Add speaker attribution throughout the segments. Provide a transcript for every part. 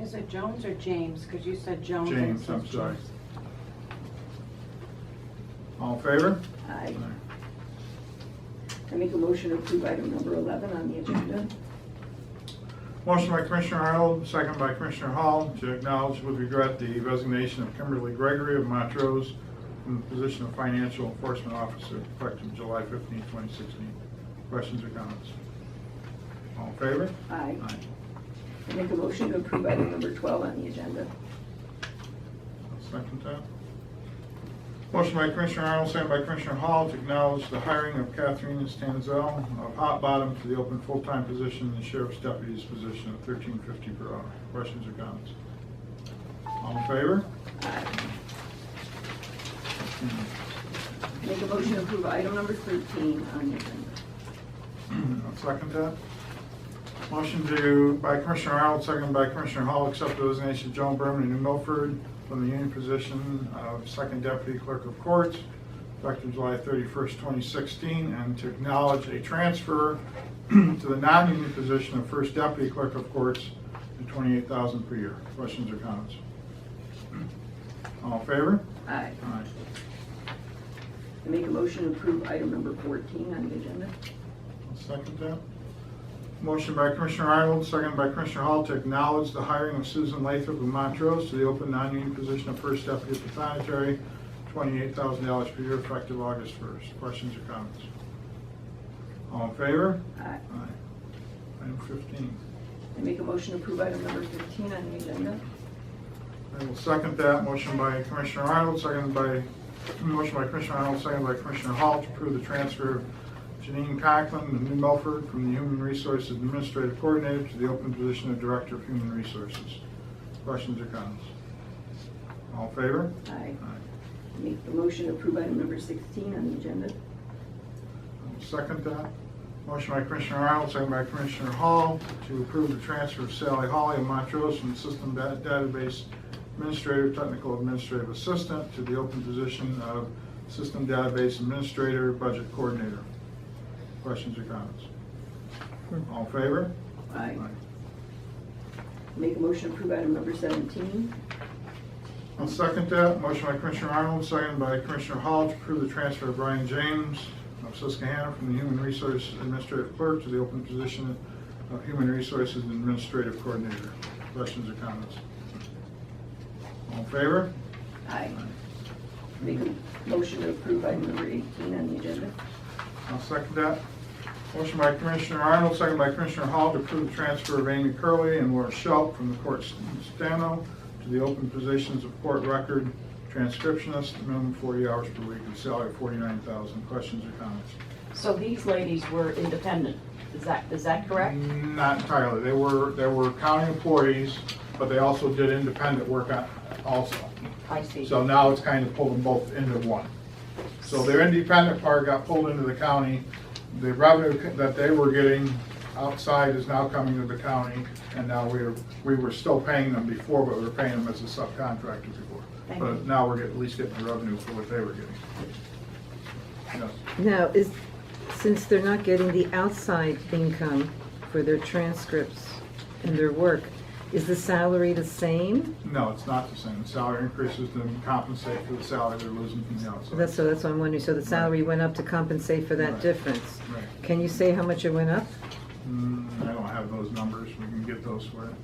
Speaker 1: Is it Jones or James? Because you said Jones. and it
Speaker 2: James, I'm
Speaker 1: says
Speaker 2: sorry.
Speaker 1: James.
Speaker 2: All in favor?
Speaker 3: Aye. I make a motion to approve item number 11 on the agenda.
Speaker 2: Motion by Commissioner Arnold, second by Commissioner Hall, to acknowledge with regret the resignation of Kimberly Gregory of Montrose from the position of Financial Enforcement Officer effective July 15, 2016. Questions or comments? All in favor?
Speaker 3: Aye. I make a motion to approve item number 12 on the agenda.
Speaker 2: I'll Second that. Motion by Commissioner Arnold, second by Commissioner Hall to acknowledge the hiring of Catherine Stanzel of Hot Bottom to the open full-time position in the Sheriff's Deputy's position of thirteen fifty per hour. Questions or comments? All in favor?
Speaker 3: Aye. I make a motion to approve item number 13 on the agenda.
Speaker 2: I'll second that. Motion to, by Commissioner Arnold, second by Commissioner Hall, accept the resignation of Joan Berman in New Milford from the union position of Second Deputy Clerk of Courts, effective July 31st, 2016, and to acknowledge a transfer to the non-union position of First Deputy Clerk of Courts at $28,000 per year. Questions or comments? All in favor?
Speaker 3: Aye.
Speaker 2: Aye.
Speaker 3: I make a motion to approve item number 14 on the agenda.
Speaker 2: I'll second that. Motion by Commissioner Arnold, second by Commissioner Hall to acknowledge the hiring of Susan Lathrop of Montrose to the open non-union position of First Deputy Pathonetary, twenty-eight thousand dollars per year effective August first. Questions or comments? All in favor?
Speaker 3: Aye.
Speaker 2: Aye. Item fifteen.
Speaker 3: I make a motion to approve item number 15 on the agenda.
Speaker 2: I will second that. Motion by Commissioner Arnold, second by, motion by Commissioner Arnold, second by Commissioner Hall to approve the transfer of Janine Conklin of New Milford from the Human Resources Administrative Coordinator to the open position of Director of Human Resources. Questions or comments? All in favor?
Speaker 3: Aye.
Speaker 2: Aye.
Speaker 3: I make a motion to approve item number 16 on the agenda.
Speaker 2: I'll Second that. Motion by Commissioner Arnold, second by Commissioner Hall to approve the transfer of Sally Hawley of Montrose from System Da- Database Administrator, Technical Administrative Assistant to the open position of System Database Administrator, Budget Coordinator. Questions or comments? All in favor?
Speaker 3: Aye. Make a motion to approve item number 17.
Speaker 2: I'll second that. Motion by Commissioner Arnold, second by Commissioner Hall to approve the transfer of Brian James of Susquehanna from the Human Resources Administrative Clerk to the open position of Human Resources Administrative Coordinator. Questions or comments? All in favor?
Speaker 3: Aye. Make a motion to approve item number 18 on the agenda.
Speaker 2: I'll second that. Motion by Commissioner Arnold, second by Commissioner Hall to approve the transfer of Amy Curley and Laura Schelt from the court stano to the open positions of court record transcriptionist, minimum 40 hours per week, and salary of 49,000. Questions or comments?
Speaker 4: So these ladies were independent, is that, is that correct?
Speaker 2: Not entirely. They were, they were county employees, but they also did independent work on- also.
Speaker 4: I see.
Speaker 2: So now it's kind of pulled them both into one. So their independent part got pulled into the county. The revenue that they were getting outside is now coming to the county, and now we're, we were still paying them before, but we were paying them as a subcontractor before.
Speaker 4: Thank you.
Speaker 2: But now we're getting, at least getting the revenue for what they were getting. Yes.
Speaker 5: Now, is, since they're not getting the outside income for their transcripts and their work, is the salary the same?
Speaker 2: No, it's not the same. The Salary increases to compensate for the salary they're losing from the outside.
Speaker 5: That's, so that's what I'm wondering, so the salary went up to compensate for
Speaker 2: Right.
Speaker 5: that difference?
Speaker 2: Right.
Speaker 5: Can you say how much it went up?
Speaker 2: Mm, I don't have those numbers. We can get those for you.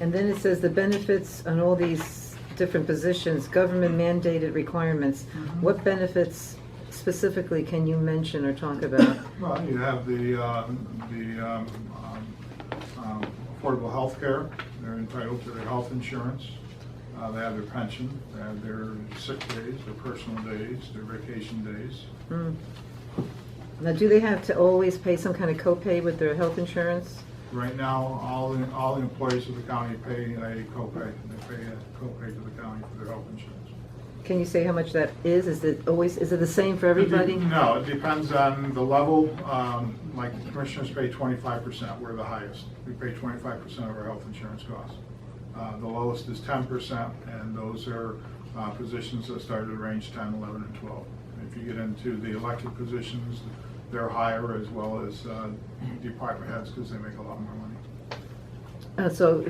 Speaker 5: And then it says the benefits on all these different positions, government mandated requirements. What benefits specifically can you mention or talk about?
Speaker 2: Well, you have the, uh, the um, um, um, affordable health care, they're entitled to their health insurance, Uh, they have their pension, they have their sick days, their personal days, their vacation days.
Speaker 5: Hmm. Now, do they have to always pay some kind of copay with their health insurance?
Speaker 2: Right now, all, the- all the employees of the county pay a copay, they pay a copay to the county for their health insurance.
Speaker 5: Can you say how much that is? Is it always, is it the same for everybody?
Speaker 2: No, it depends on the level, um, like the commissioners pay twenty-five percent, we're the highest. We pay twenty-five percent of our health insurance costs. Uh, the lowest is ten percent, and those are, uh, positions that start at range 10, 11, and twelve. If you get into the elected positions, they're higher as well as, uh, department heads, because they make a lot more money.
Speaker 5: Uh, So